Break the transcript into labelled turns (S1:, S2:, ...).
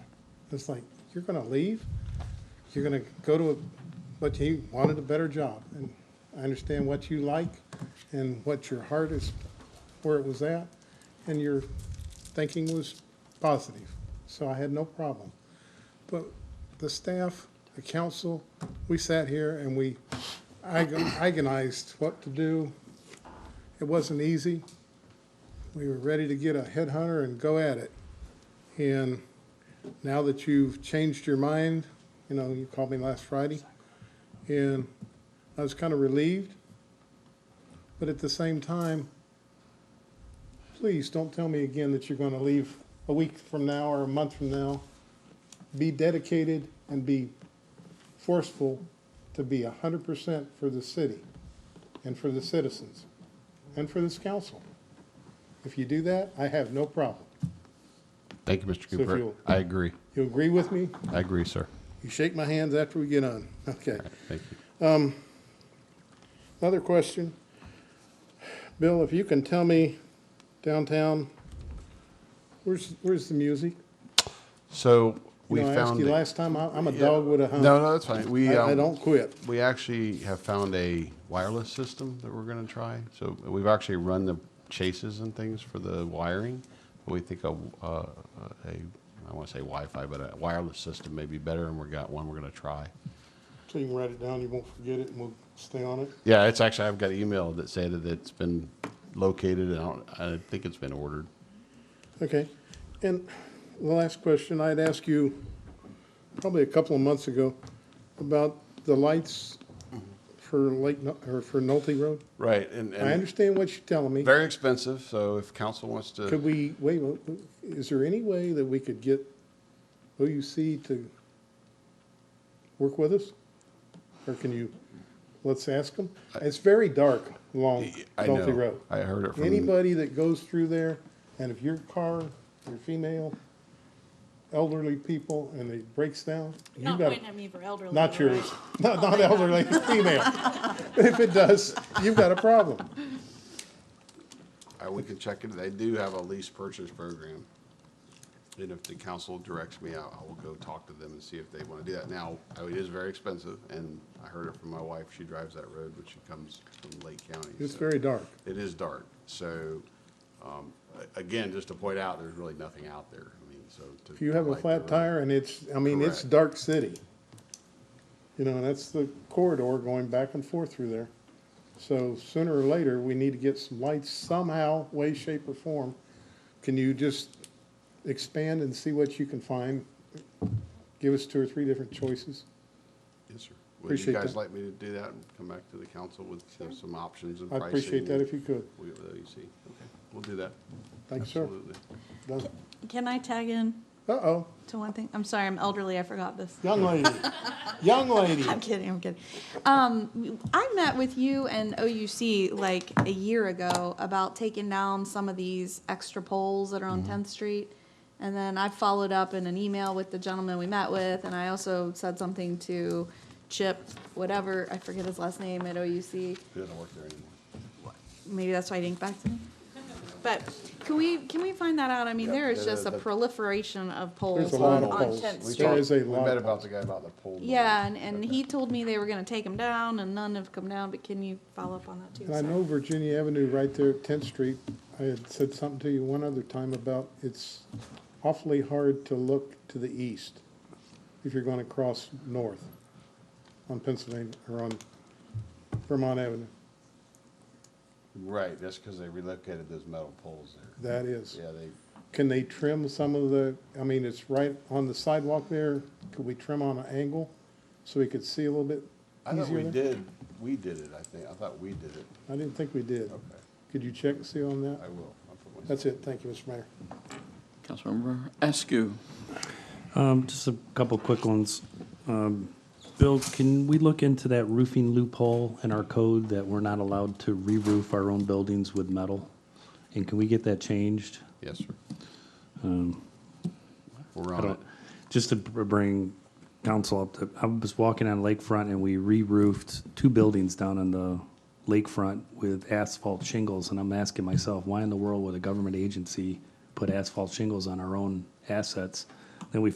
S1: It's like, you're gonna leave, you're gonna go to, a but you wanted a better job. And I understand what you like and what your heart is, where it was at, and your thinking was positive. So I had no problem. But the staff, the council, we sat here and we agon- agonized what to do. It wasn't easy. We were ready to get a headhunter and go at it. And now that you've changed your mind, you know, you called me last Friday, and I was kind of relieved. But at the same time, please don't tell me again that you're going to leave a week from now or a month from now. Be dedicated and be forceful to be 100% for the city and for the citizens and for this council. If you do that, I have no problem.
S2: Thank you, Mr.
S1: So if
S2: Cooper.
S1: you'll-
S2: I agree.
S1: You agree with me?
S2: I agree, sir.
S1: You shake my hands after we get on. Okay.
S2: Thank you.
S1: Another question. Bill, if you can tell me downtown, where's, where's the music?
S2: So
S1: You
S2: we
S1: know, I asked
S2: found.
S1: you last time, I- I'm a
S2: Yeah.
S1: dog with a hump.
S2: No, no, that's fine. We.
S1: I, I
S2: um,
S1: don't quit.
S2: We actually have found a wireless system that we're going to try. So we've actually run the chases and things for the wiring. We think a, uh, a I want to say Wi-Fi, but a wireless system may be better, and we got one we're going to try.
S1: So you can write it down, you won't forget it, and we'll stay on it.
S2: Yeah, it's actually I've got an email that said that it's been located, and I, don't, I think it's been ordered.
S1: Okay. And the last question, I'd ask you probably a couple of months ago about the lights for Lake, No- or for Nolte Road.
S2: Right, and,
S1: I understand what you're telling me.
S2: very expensive. So if council wants to,
S1: Could we, wait, wait, wait, is there any way that we could get OUC to work with us? Or can you, let's ask them? It's very dark along
S2: I know.
S1: Nolte Road.
S2: I heard it from
S1: Anybody that goes through there, and if your car, you're female, elderly people, and it breaks down, you
S3: Not
S1: got,
S3: Wyndham either, elderly.
S1: not
S3: right?
S1: yours, not, not elderly, female. If it does, you've got a problem.
S2: Uh, we can check it. They do have a lease purchase program. And if the council directs me out, I will go talk to them and see if they want to do that. Now, uh, it is very expensive, and I heard it from my wife. She drives that road, but she comes from Lake County.
S1: It's
S2: so-
S1: very dark.
S2: It is dark. So, um, a- again, just to point out, there's really nothing out there. I mean, so. to-
S1: If you have
S2: to
S1: a
S2: light the
S1: flat
S2: road-
S1: tire and it's, I mean, it's
S2: uh, Correct.
S1: dark city. You know, and that's the corridor going back and forth through there. So sooner or later, we need to get some lights somehow, way, shape, or form. Can you just expand and see what you can find? Give us two or three different choices.
S2: Yes, sir. Would you
S1: Appreciate
S2: guys
S1: that.
S2: like me to do that and come back to the council with you know, some options and
S1: I
S2: pricing?
S1: appreciate that if you could.
S2: We, you see. Okay, we'll do that.
S1: Thanks, sir.
S2: Absolutely.
S1: Done.
S4: Can I tag in
S1: Uh-oh,
S4: to one thing? I'm sorry, I'm elderly, I forgot this.
S1: young lady, young lady.
S4: I'm kidding, I'm kidding. Um, I met with you and OUC like a year ago about taking down some of these extra poles that are on
S1: Mm-hmm.
S4: Tenth Street. And then I followed up in an email with the gentleman we met with, and I also said something to Chip, whatever, I forget his last name at OUC.
S2: He doesn't work there anymore.
S4: Maybe that's why he didn't get back to me. But can we, can we find that out? I mean,
S2: Yeah,
S4: there is
S2: that-
S4: just a
S2: that-
S4: proliferation of poles
S1: There's a lot
S4: on,
S1: of
S4: on
S1: poles.
S4: Tenth
S1: We
S4: Street.
S1: There is a lot
S2: We met
S1: of
S2: about the guy about the pole.
S4: Yeah, and, and he told me they were gonna take them down, and none have come down, but can you follow up on that too?
S1: And I
S4: Sorry.
S1: know Virginia Avenue, right there at Tenth Street, I had said something to you one other time about it's awfully hard to look to the east if you're gonna cross north on Pennsylvania, or on Vermont Avenue.
S2: Right, that's because they relocated those metal poles there.
S1: That is.
S2: Yeah, they,
S1: Can they trim some of the, I mean, it's right on the sidewalk there. Could we trim on an angle so we could see a little bit
S2: I thought we
S1: easier there?
S2: did, we did it, I think, I thought we did it.
S1: I didn't think we did.
S2: Okay,
S1: Could you check and see on
S2: I
S1: that?
S2: will. I'll put myself-
S1: That's it. Thank you, Mr. Mayor.
S5: Councilmember Askew.
S6: Um, just a couple quick ones. Um, Bill, can we look into that roofing loophole in our code that we're not allowed to re-roof our own buildings with metal? And can we get that changed?
S2: Yes, sir. Um, We're
S6: I
S2: on
S6: don't,
S2: it.
S6: just to br- bring council up to, I was walking on lakefront and we re-roofed two buildings down on the lakefront with asphalt shingles, and I'm asking myself, why in the world would a government agency put asphalt shingles on our own assets? Then we